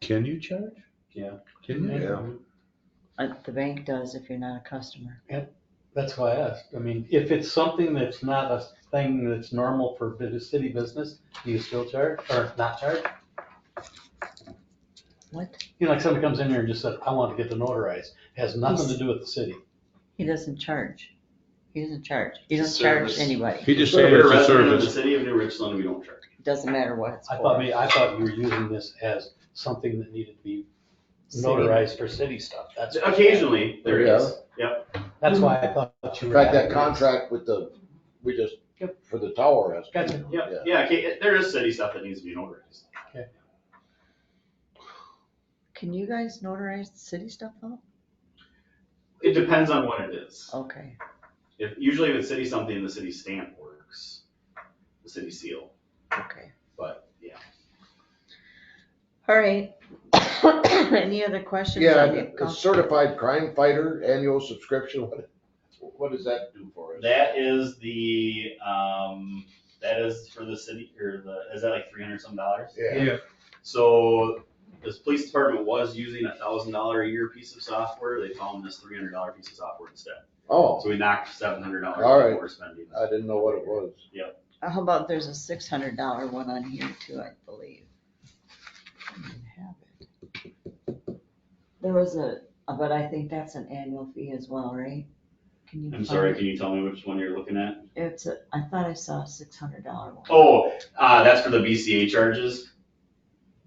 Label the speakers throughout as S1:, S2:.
S1: Can you charge?
S2: Yeah.
S1: Can you?
S3: Yeah.
S4: Uh, The bank does if you're not a customer.
S2: That's why I asked. I mean, if it's something that's not a thing that's normal for bu- city business, do you still charge or not charge?
S4: What?
S2: You know, like somebody comes in here and just said, I want to get the notarized. Has nothing to do with the city.
S4: He doesn't charge. He doesn't charge. He
S5: It's a
S4: doesn't charge
S5: service.
S4: anybody.
S1: He just said it's a
S5: resident of the
S1: service.
S5: city of New Richland, we don't charge.
S4: Doesn't matter what it's
S2: I thought,
S4: for.
S2: may- I thought you were using this as something that needed to be
S4: City.
S2: notarized for city stuff. That's.
S5: Occasionally, there
S3: Yeah.
S5: is.
S2: That's why I thought
S3: In
S2: you were.
S3: fact, that contract with the, we just,
S2: Yep.
S3: for the tower has.
S2: Gotcha.
S5: Yep, yeah, okay, there is city stuff that needs to be notarized.
S4: Can you guys notarize the city stuff though?
S5: It depends on what it is.
S4: Okay.
S5: If, usually if it's city something, the city stamp works, the city seal,
S4: Okay.
S5: but yeah.
S4: All right. Any other questions?
S3: Yeah,
S4: on it,
S3: and a
S4: Council?
S3: certified crime fighter annual subscription, what, what does that do for us?
S5: That is the, um, that is for the city, or the, is that like three hundred some dollars?
S3: Yeah,
S5: So this police department was using a thousand dollar a year piece of software, they found this three hundred dollar piece of software instead.
S3: oh,
S5: So we knocked seven hundred dollars
S3: All
S5: off
S3: right.
S5: what we're spending.
S3: I didn't know what it was.
S4: Uh, How about there's a six hundred dollar one on here too, I believe. I don't have it. There was a, uh, but I think that's an annual fee as well, right? Can you
S5: I'm
S4: find
S5: sorry,
S4: it?
S5: can you tell me which one you're looking at?
S4: It's a, I thought I saw a six hundred dollar one
S5: Oh, uh, that's for the BCA charges.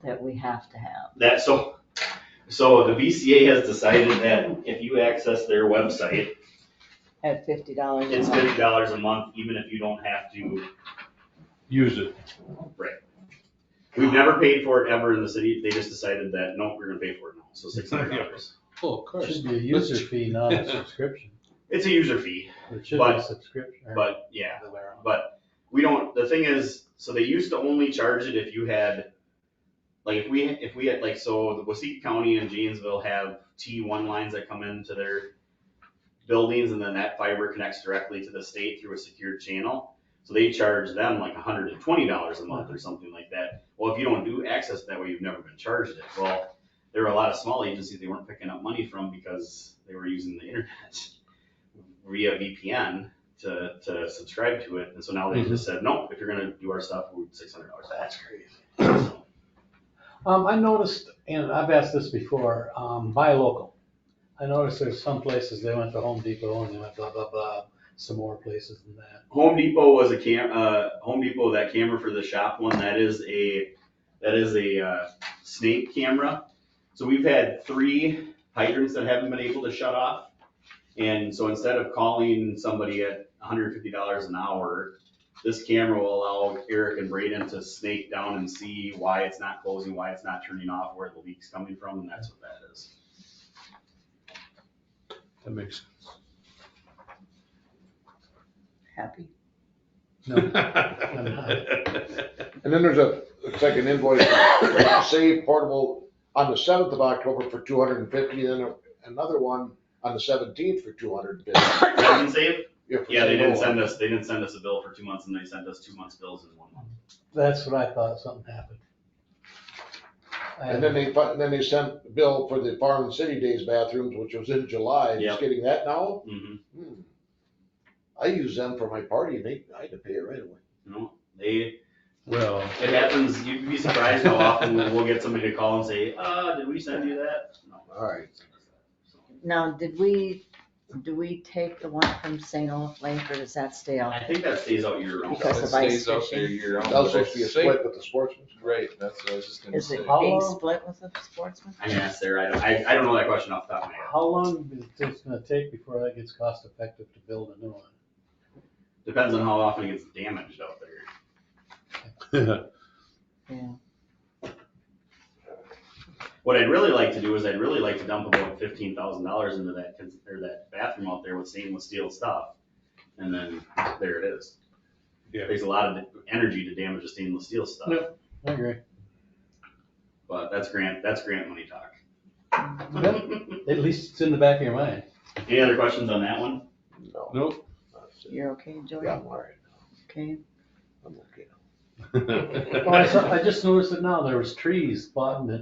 S4: that we have to have.
S5: That, so, so the BCA has decided that if you access their website,
S4: At fifty dollars a
S5: It's
S4: month.
S5: fifty dollars a month, even if you don't have to.
S1: Use it.
S5: We've never paid for it ever in the city. They just decided that, no, we're gonna pay for it now, so six hundred dollars.
S1: Oh, of course.
S2: Should be a user fee, not a subscription.
S5: It's a user fee,
S2: It should be
S5: But-
S2: a subscription. or
S5: but yeah,
S2: the other way around.
S5: but we don't, the thing is, so they used to only charge it if you had, like, if we, if we had, like, so the Wasik County and Janesville have T one lines that come into their buildings, and then that fiber connects directly to the state through a secured channel. So they charge them like hundred and twenty dollars a month or something like that. Well, if you don't do access that way, you've never been charged it. Well, there were a lot of small agencies they weren't picking up money from because they were using the internet via VPN to, to subscribe to it. And so now they just said, no, if you're gonna do our stuff, we're six hundred dollars.
S2: That's crazy.
S5: So,
S2: Um, I noticed, and I've asked this before, um, buy local. I noticed there's some places, they went to Home Depot and they went blah, blah, blah, some more places than that.
S5: Home Depot was a cam, uh, Home Depot, that camera for the shop one, that is a, that is a, uh, snake camera. So we've had three hydrants that haven't been able to shut off. And so instead of calling somebody at hundred and fifty dollars an hour, this camera will allow Eric and Braden to snake down and see why it's not closing, why it's not turning off, where the leak's coming from, and that's what that is.
S1: That makes
S4: Happy.
S2: No, uh,
S1: sense.
S3: And then there's a a second invoice, save portable, on the seventh of October for two hundred and fifty, then a- another one on the seventeenth for two hundred and fifty.
S5: Doesn't save Yeah, they didn't send us, they didn't send us a bill for two months and they sent us two months bills in one month.
S2: that's what I thought, something happened. I-
S3: And then they, fi- then they sent bill for the Farm and City Days bathrooms, which was in July,
S5: Yep.
S3: just getting that now?
S5: Mhm.
S3: Hmm. I use them for my party, and they, I had to pay it right away.
S5: No, they,
S1: Well,
S5: it happens, you'd be surprised how often we'll get somebody to call and say, uh, did we send you that? No.
S3: All right.
S4: Now, did we, do we take the one from St. Olaf Lake or does that stay out?
S5: I think that stays out year round.
S4: Because of ice
S6: Stays out there
S4: fishing.
S6: year round,
S3: That was
S6: but I
S3: supposed to be a
S6: think-
S3: split with the sportsmen.
S6: Right, that's what I was just gonna
S4: Is
S6: say.
S4: it
S2: How
S4: being
S2: long-
S4: split with the sportsman?
S5: I can ask Sarah, I don't, I, I don't know that question off the top of my head.
S2: How long is this gonna take before that gets cost effective to build a new one?
S5: Depends on how often it gets damaged out there.
S4: Yeah.
S5: What I'd really like to do is I'd really like to dump about fifteen thousand dollars into that, cons- or that bathroom out there with stainless steel stuff. And then there it is.
S1: Yeah.
S5: Takes a lot of energy to damage a stainless steel stuff.
S2: Yep. I agree.
S5: But that's grant, that's grant money talk.
S2: At least it's in the back of your mind.
S5: Any other questions on that one?
S3: No.
S1: nope.
S3: that's it.
S4: You're okay, Joey?
S3: Yeah, I'm all right.
S4: Okay.
S3: I'm okay.
S2: Well, I saw, I just noticed it now, there was trees bottom it